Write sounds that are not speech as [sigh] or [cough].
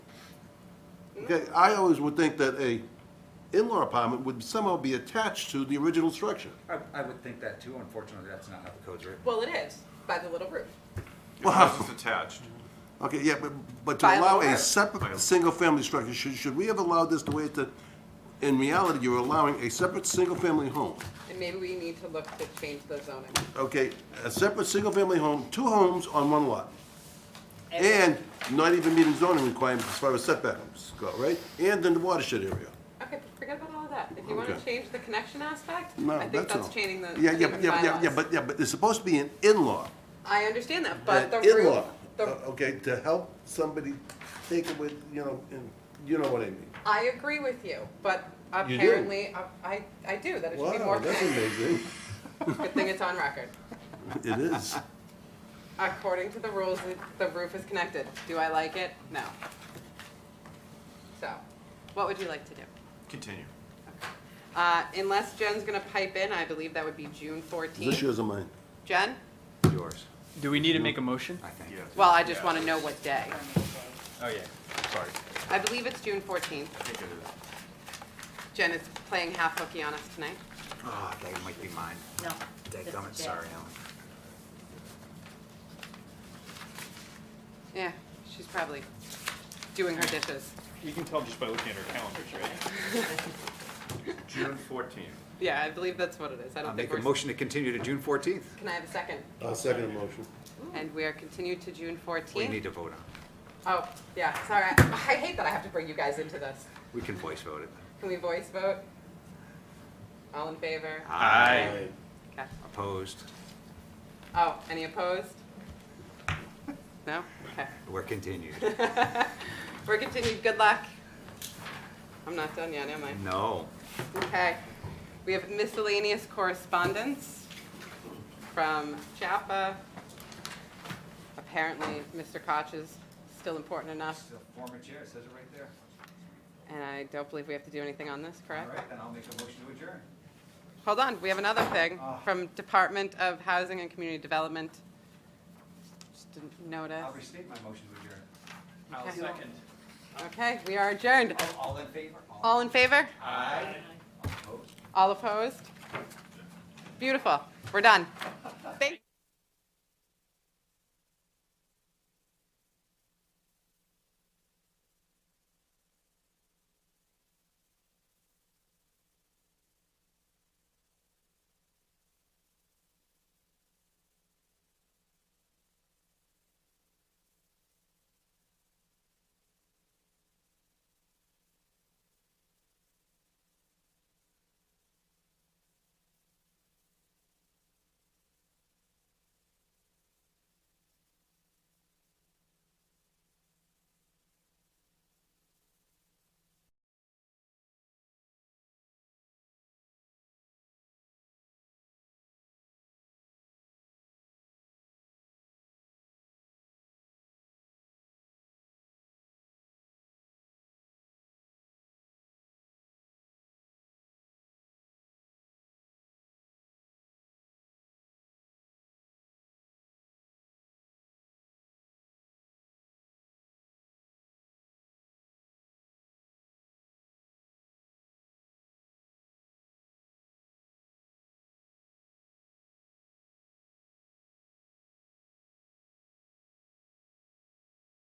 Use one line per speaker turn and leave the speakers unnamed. Okay, I always would think that a in-law apartment would somehow be attached to the original structure.
I, I would think that too, unfortunately, that's not how the code's written.
Well, it is, by the little roof.
Your house is attached.
Okay, yeah, but, but
By
to allow
law.
a separate, single-family structure, should, should we have allowed this the way that, in reality, you're allowing a separate, single-family home?
And maybe we need to look to change the zoning.
Okay, a separate, single-family home, two homes on one lot. And not even meeting zoning requirements as far as setbacks go, right? And in the watershed area.
Okay, forget about all of that. If you want to
Okay.
change the connection aspect,
No,
I think that's
all.
changing the.
Yeah, yeah,
changing the
yeah, yeah, yeah,
bylaws.
but, yeah, but it's supposed to be an in-law.
I understand that,
an
but the roof,
in-law,
the,
uh, Okay, to help somebody take it with, you know, and, you know what I mean.
I agree with you, but
You do?
apparently, I- I, I do, that it should be
Wow,
more. [laughs]
that's amazing.
Good thing it's on record.
It
[laughs]
is.
According to the rules, the- the roof is connected. Do I like it? No. So, what would you like to do?
Continue.
Uh, unless Jen's gonna pipe in, I believe that would be June
Is this
fourteenth.
yours or mine?
Jen?
Yours,
Do we need to make a motion?
I think.
Yeah.
Well, I just wanna know what day.
Oh, yeah.
Sorry.
I believe it's June fourteenth.
I think it is.
Jen is playing half hooky on us tonight.
Ah, that might be mine.
No.
Dadgummit,
That's
sorry,
dead.
Alan.
Yeah, she's probably doing her dishes.
You can tell just by looking at our calendars, right?
June fourteenth.
Yeah, I believe that's what it is. I
I'll
don't think
Uh, make a
we're.
motion to continue to June fourteenth.
Can I have a second?
I'll second the motion.
And we are continued to June
We need
fourteenth.
to vote on.
Oh, yeah, sorry. I hate that I have to bring you guys into this.
it. We can voice vote it.
Can we voice vote? All in favor?
Aye.
Okay.
Opposed?
Oh, any opposed? No? Okay.
We're continued. [laughs]
We're continued. Good luck. I'm not done yet, am I?
No.
Okay. We have miscellaneous correspondence from Chapa. Apparently, Mr. Koch is still important enough,
Former chair says it right there.
and I don't believe we have to do anything on this, correct?
then I'll make a motion to adjourn.
Hold on, we have another thing from Department of Housing and Community Development. Just didn't notice.
restate my motion to adjourn.
I'll
Okay.
second.
Okay, we are adjourned.
All in favor?
All in favor?
Aye. Opposed?
All opposed? Beautiful. We're done. Thank